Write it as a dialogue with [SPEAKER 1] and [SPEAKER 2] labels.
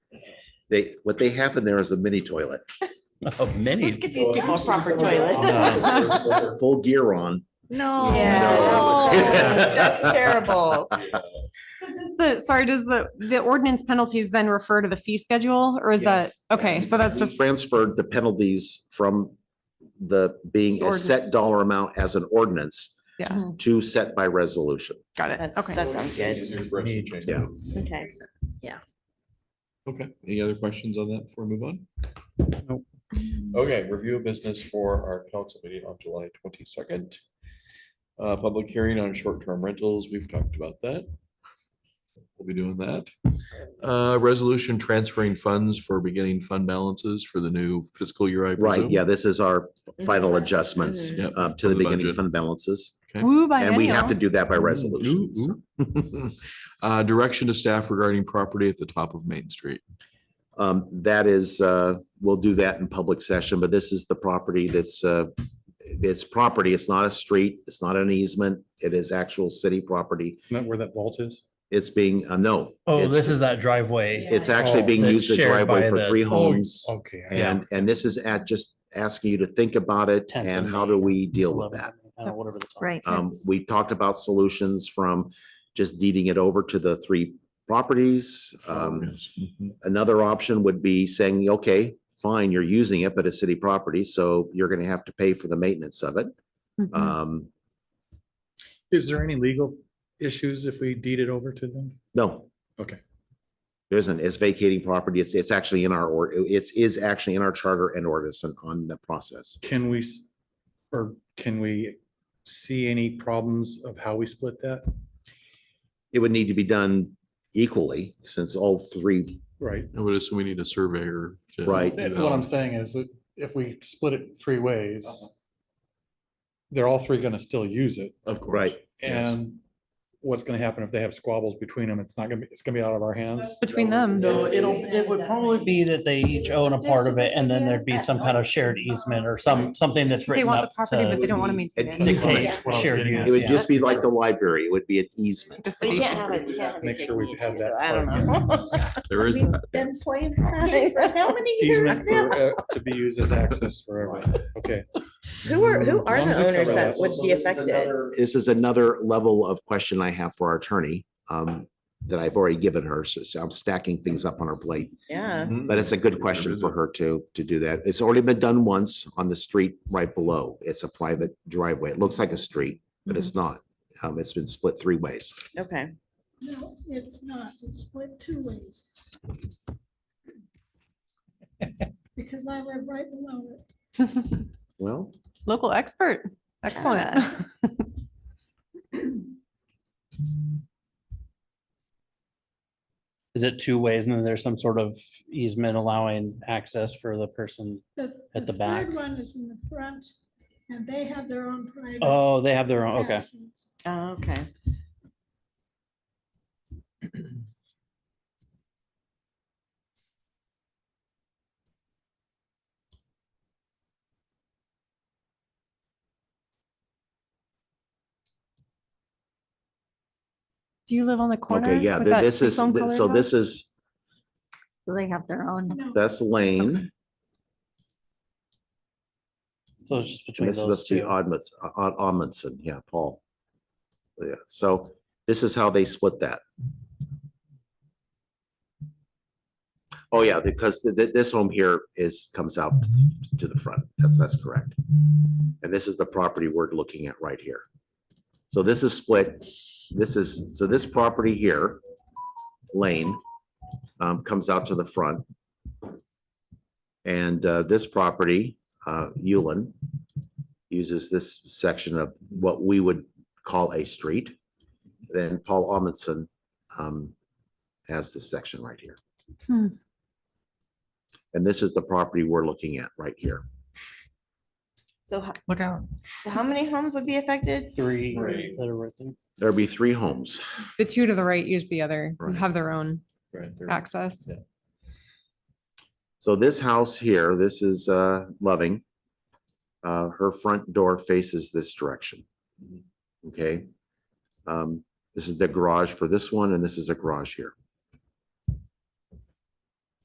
[SPEAKER 1] They, what they have in there is a mini toilet.
[SPEAKER 2] Of many.
[SPEAKER 3] Let's get these people proper toilets.
[SPEAKER 2] Uh,
[SPEAKER 1] Full gear on.
[SPEAKER 3] No. Oh.
[SPEAKER 1] Yeah.
[SPEAKER 3] No. That's terrible.
[SPEAKER 4] So does The, sorry, does the, the ordinance penalties then refer to the fee schedule or is that, okay, so that's
[SPEAKER 1] We
[SPEAKER 4] just,
[SPEAKER 1] Transferred the penalties from the being a
[SPEAKER 4] Ordinance.
[SPEAKER 1] set dollar amount as an ordinance
[SPEAKER 4] yeah,
[SPEAKER 1] to set by resolution.
[SPEAKER 4] got it.
[SPEAKER 3] That's,
[SPEAKER 4] Okay.
[SPEAKER 3] that sounds good.
[SPEAKER 1] Yeah.
[SPEAKER 3] Okay.
[SPEAKER 5] Okay, any other questions on that before we move on? Okay, review of business for our council meeting on July twenty-second. Uh, public hearing on short-term rentals, we've talked about that. We'll be doing that. Uh, resolution transferring funds for beginning fund balances for the new fiscal year, I
[SPEAKER 1] Right,
[SPEAKER 5] presume.
[SPEAKER 1] yeah, this is our final adjustments
[SPEAKER 3] Mhm.
[SPEAKER 5] Yep,
[SPEAKER 1] uh, to the
[SPEAKER 5] the
[SPEAKER 1] beginning
[SPEAKER 5] budget.
[SPEAKER 1] fund balances.
[SPEAKER 5] Okay.
[SPEAKER 4] Woo by
[SPEAKER 1] And we have to
[SPEAKER 4] mail.
[SPEAKER 1] do that by resolution. so.
[SPEAKER 5] Uh, direction to staff regarding property at the top of Main Street.
[SPEAKER 1] Um, that is, uh, we'll do that in public session, but this is the property that's, uh, it's property. It's not a street. It's not an easement. It is actual city property.
[SPEAKER 6] Isn't that where that vault is?
[SPEAKER 1] It's being, uh, no.
[SPEAKER 2] Oh,
[SPEAKER 1] it's-
[SPEAKER 2] this is that driveway.
[SPEAKER 1] It's actually
[SPEAKER 2] Oh,
[SPEAKER 1] being
[SPEAKER 2] that's
[SPEAKER 1] used as
[SPEAKER 2] shared by
[SPEAKER 1] driveway for
[SPEAKER 2] the-
[SPEAKER 1] three
[SPEAKER 2] Oh,
[SPEAKER 1] homes.
[SPEAKER 6] Okay. I-
[SPEAKER 1] And, and this is at just asking you to think about it
[SPEAKER 7] Tenth
[SPEAKER 1] and
[SPEAKER 7] and
[SPEAKER 1] how do
[SPEAKER 7] Main,
[SPEAKER 1] we deal with
[SPEAKER 7] 11,
[SPEAKER 1] that?
[SPEAKER 7] I don't know, whatever the time.
[SPEAKER 3] Right.
[SPEAKER 1] Um, we talked about solutions from just deeding it over to the three properties. Um,
[SPEAKER 5] Yes. Mhm.
[SPEAKER 1] Another option would be saying, okay, fine, you're using it, but it's city property, so you're gonna have to pay for the maintenance of it.
[SPEAKER 3] Mm-hmm.
[SPEAKER 5] Mm-hmm.
[SPEAKER 4] Mhm.
[SPEAKER 1] Um,
[SPEAKER 6] Is there any legal issues if we deed it over to them?
[SPEAKER 1] no.
[SPEAKER 6] Okay.
[SPEAKER 1] There isn't, it's vacating property, it's, it's actually in our, or, it's, is actually in our charter and ordinance and on the process.
[SPEAKER 6] Can we, s- or can we see any problems of how we split that?
[SPEAKER 1] It would need to be done equally, since all three,
[SPEAKER 6] Right.
[SPEAKER 5] I would assume we need a surveyor. to-
[SPEAKER 1] Right.
[SPEAKER 6] Eh, What I'm saying is that if we split it three ways,
[SPEAKER 3] Uh-huh.
[SPEAKER 6] they're all three going to still use it.
[SPEAKER 5] Of course.
[SPEAKER 1] Right.
[SPEAKER 5] Yes.
[SPEAKER 6] And what's going to happen if they have squabbles between them? It's not going to be, it's going to be out of our hands.
[SPEAKER 4] Between them.
[SPEAKER 7] No, it'll, it would probably be that they each own a part of it and then there'd be some kind of shared easement or some, something that's
[SPEAKER 4] They
[SPEAKER 7] written
[SPEAKER 4] want the
[SPEAKER 7] up
[SPEAKER 4] property, but they
[SPEAKER 7] to
[SPEAKER 4] don't want to
[SPEAKER 1] be
[SPEAKER 4] maintain
[SPEAKER 1] an
[SPEAKER 4] it.
[SPEAKER 1] easement.
[SPEAKER 7] dictate
[SPEAKER 6] That's what I was
[SPEAKER 7] shared
[SPEAKER 6] getting at.
[SPEAKER 1] it would
[SPEAKER 7] use. yeah.
[SPEAKER 1] just be like the library, it would be an easement.
[SPEAKER 4] The
[SPEAKER 3] We
[SPEAKER 4] city.
[SPEAKER 3] can't have it. we can't have
[SPEAKER 6] Make
[SPEAKER 3] a
[SPEAKER 6] sure we
[SPEAKER 3] picnic
[SPEAKER 6] have
[SPEAKER 3] table,
[SPEAKER 6] that
[SPEAKER 3] so I don't
[SPEAKER 6] part,
[SPEAKER 3] know.
[SPEAKER 5] There is
[SPEAKER 3] We've
[SPEAKER 5] that.
[SPEAKER 3] Been
[SPEAKER 5] yes.
[SPEAKER 3] playing that for how many years
[SPEAKER 6] Easement
[SPEAKER 3] now?
[SPEAKER 6] for, uh, to be used as access forever. Okay.
[SPEAKER 3] Who are, who are
[SPEAKER 6] Long as
[SPEAKER 3] the
[SPEAKER 6] we
[SPEAKER 3] owners
[SPEAKER 6] cover
[SPEAKER 3] that
[SPEAKER 6] that.
[SPEAKER 3] would be affected?
[SPEAKER 1] This is another level of question I have for our attorney, um, that I've already given her, so- so I'm stacking things up on her plate.
[SPEAKER 3] Yeah.
[SPEAKER 5] Mhm.
[SPEAKER 1] But it's a good question for her to, to do that. It's already been done once on the street right below. It's a private driveway. It looks like a street, but
[SPEAKER 4] Mm-hmm.
[SPEAKER 1] it's not. Um, it's been split three ways.
[SPEAKER 3] Okay.
[SPEAKER 8] No, it's not. It's split two ways. Because I live right below it.
[SPEAKER 1] Well,
[SPEAKER 4] Local expert. Excellent.
[SPEAKER 7] Is it two ways and then there's some sort of easement allowing access for the person? At the back.
[SPEAKER 8] third One is in the front and they have their own private.
[SPEAKER 7] Oh, they have their own, okay.
[SPEAKER 8] passes.
[SPEAKER 3] Oh, Okay.
[SPEAKER 4] Do you live on the corner?
[SPEAKER 1] okay, yeah,
[SPEAKER 4] with
[SPEAKER 1] th-
[SPEAKER 4] that
[SPEAKER 1] this is,
[SPEAKER 4] two-phone
[SPEAKER 1] th-
[SPEAKER 4] colored
[SPEAKER 1] so
[SPEAKER 4] house?
[SPEAKER 1] this is,
[SPEAKER 3] They have their own.
[SPEAKER 8] No,
[SPEAKER 1] that's Lane.
[SPEAKER 7] So it's just between
[SPEAKER 1] And this
[SPEAKER 7] those
[SPEAKER 1] must be
[SPEAKER 7] two.
[SPEAKER 1] Odmits, Od- Odmondson, yeah, Paul. Yeah, so this is how they split that. Oh, yeah, because th- th- this home here is, comes out to the front. That's, that's correct. And this is the property we're looking at right here. So this is split. This is, so this property here, lane, um, comes out to the front. And, uh, this property, uh, Ullin, uses this section of what we would call a street. Then Paul Amundson um, has this section right here.
[SPEAKER 4] Hmm.
[SPEAKER 1] And this is the property we're looking at right here.
[SPEAKER 3] So, ho-
[SPEAKER 7] Look out.
[SPEAKER 3] so how many homes would be affected?
[SPEAKER 7] Three
[SPEAKER 5] Three.
[SPEAKER 7] that are right there.
[SPEAKER 1] There'll be three homes.
[SPEAKER 4] The two to the right use the other,
[SPEAKER 1] Right.
[SPEAKER 4] have their own
[SPEAKER 5] Right there.
[SPEAKER 4] access.
[SPEAKER 1] So this house here, this is uh, Loving. Uh, Her front door faces this direction. Okay? Um, This is the garage for this one, and this is a garage here.